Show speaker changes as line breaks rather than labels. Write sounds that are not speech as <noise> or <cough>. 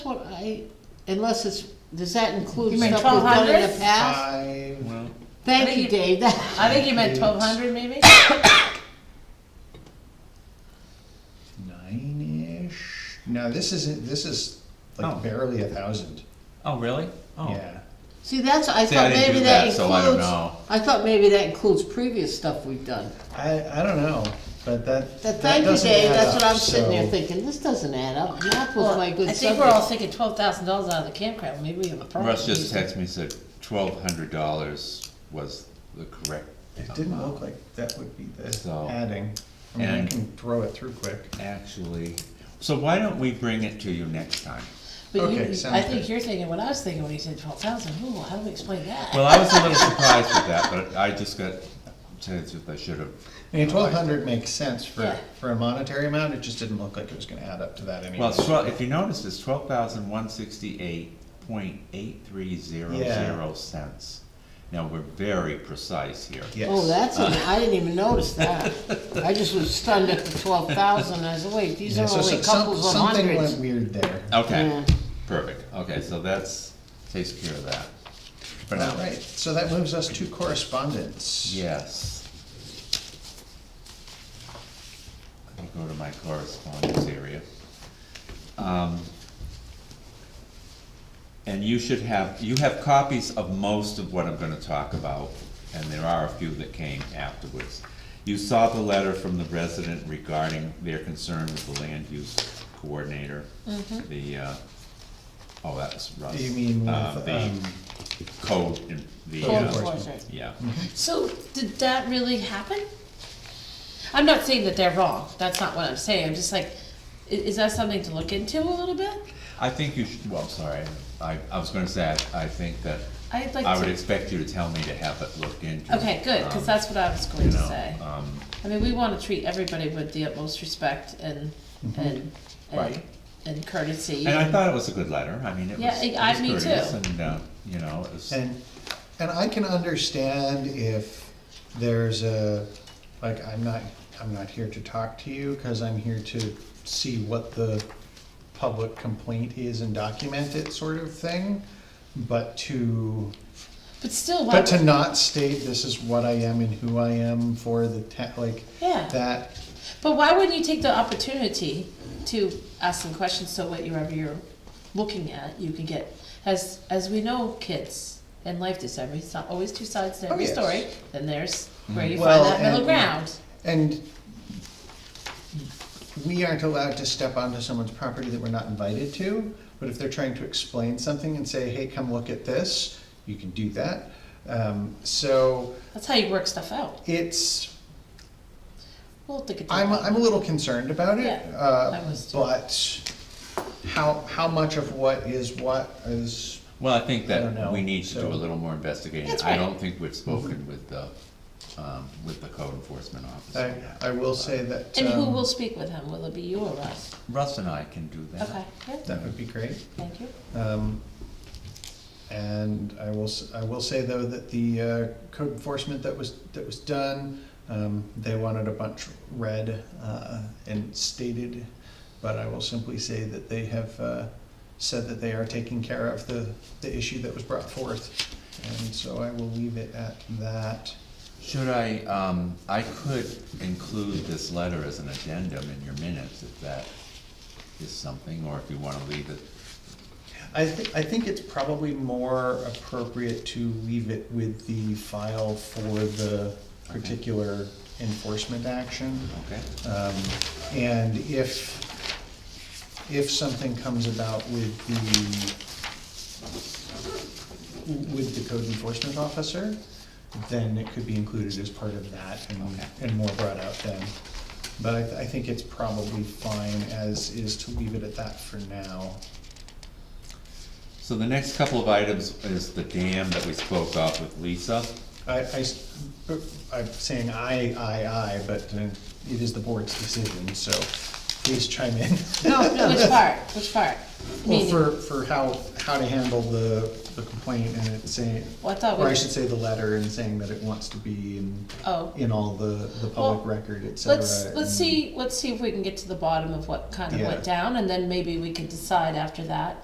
right? Unless it's, does that include
You mean
stuff we've done in the
1200?
Uh,
past?
Five,
Well,
Thank you, Dave, That-
I think you meant
Eight.
twelve hundred maybe?
nine-ish? No, this isn't, this is
Oh.
like barely a thousand.
oh, really? Oh.
Yeah.
see, that's, I
See, I
thought
didn't
maybe
do
that
that, so I don't
includes,
know.
I thought maybe that includes previous stuff we've done.
I, I don't know, but that,
That,
that
thank you,
doesn't
Dave,
add
that's what
up,
I'm sitting there
so-
thinking, this doesn't add up, math was
Well,
my good
I think we're all
subject.
thinking twelve thousand dollars out of the campground, maybe we have a problem.
Russ just texted me, said twelve hundred dollars was the correct
It didn't look like that would be the
So-
adding. I mean, I
And-
can throw it through quick.
actually. So why don't we bring it to you next time?
But you,
Okay, sounds
I think
good.
you're thinking what I was thinking when you said twelve thousand, ooh, how do we explain that?
Well, I was a little surprised with that, but I just got, to the truth, I should have.
I mean, twelve hundred makes sense for,
Yeah.
for a monetary amount, it just didn't look like it was gonna add up to that anyway.
Well, it's twelve, if you notice, it's twelve thousand one sixty-eight point eight three zero zero cents. Now, we're very precise here.
Yes.
Oh, that's, an- I didn't even notice that, I just was stunned at the twelve thousand, I said, wait, these
Yeah,
are
so
only
so- some-
couples of
Something went
hundreds.
weird there.
Okay,
Yeah.
perfect. Okay, so that's, takes care of that. For now.
All right, so that moves us to correspondence.
Yes. Let me go to my correspondence area. Um, And you should have, you have copies of most of what I'm gonna talk about, and there are a few that came afterwards. You saw the letter from the resident regarding their concern with the land use coordinator,
Mm-hmm.
the, uh, oh, that was Russ.
Do you mean
Uh,
with,
the
um,
Code, in- the,
Code
uh,
enforcement.
yeah.
Mm-hmm.
So, did that really happen? I'm not saying that they're wrong, that's not what I'm saying, I'm just like, i- is that something to look into a little bit?
I think you should, well, I'm sorry, I, I was gonna say, I I think that,
I'd like
I would
to-
expect you to tell me to have it looked into.
Okay, good, cause
um,
that's what I was going
you
to
know,
say.
um,
I mean, we wanna treat everybody with the utmost respect and,
Mm-hmm.
and, and
Right.
and courtesy.
And I thought it was a good letter, I mean, it was,
Yeah,
it
I- I-
was
me too.
courteous and, uh, you know, it was,
And, and I can understand if there's a, like, I'm not, I'm not here to talk to you, cause I'm here to see what the public complaint is and document it sort of thing. But to,
But still, why
but to
would-
not state this is what I am and who I am for the ta- like,
Yeah.
that,
But why wouldn't you take the opportunity to ask some questions so whatever you're looking at, you can get, as, as we know, kids and life is every, it's not always two sides to
Oh,
every
yes. Mm-hmm.
story, then there's where you
Well,
find that middle
and-
ground.
and we aren't allowed to step onto someone's property that we're not invited to, but if they're trying to explain something and say, hey, come look at this, you can do that. Um, so
That's how you work stuff out.
it's,
We'll think it
I'm, I'm a little concerned about it.
Yeah, I
uh,
was too.
But how, how much of what is what is,
well, I think
I don't know,
that we need to do
so- Mm-hmm.
a little more investigation.
That's
I
right.
don't think we've spoken with the, um, with the code enforcement
I,
officer. yet.
I will say that.
And who
um,
will speak with him? Will it be you or Russ?
Russ and I can do that.
Okay, yeah,
That would be great.
thank you.
Um, And I will, s- I will say though that the uh, code enforcement that was, that was done, um, they wanted a bunch read uh, and stated, but I will simply say that they have uh, said that they are taking care of the, the issue that was brought forth. And so I will leave it at that.
Should I, um, I could include this letter as an addendum in your minutes if that is something, or if you wanna leave it.
I think, I think it's probably more appropriate to leave it with the file for the particular enforcement action.
Okay.
Um, And if, if something comes about with the, with the code enforcement officer, then it could be included as part of that and,
Okay.
and more brought out then. But I, I think it's probably fine as is to leave it at that for now.
So the next couple of items is the dam that we spoke of with Lisa.
I, am saying I, I, I, but uh, it is the board's decision, so please chime in. <laughs>
No, no, which part, which part?
Well,
Meaning-
for, for how, how to handle the, the complaint and it saying,
Well, I thought we-
or I should say the letter and saying that it wants to be in,
Oh.
in all the, the public
Well,
record, et cetera.
Let's, let's
and-
see, let's see if we can get to the bottom of what kind of
Yeah.
went down, and then maybe we could decide after that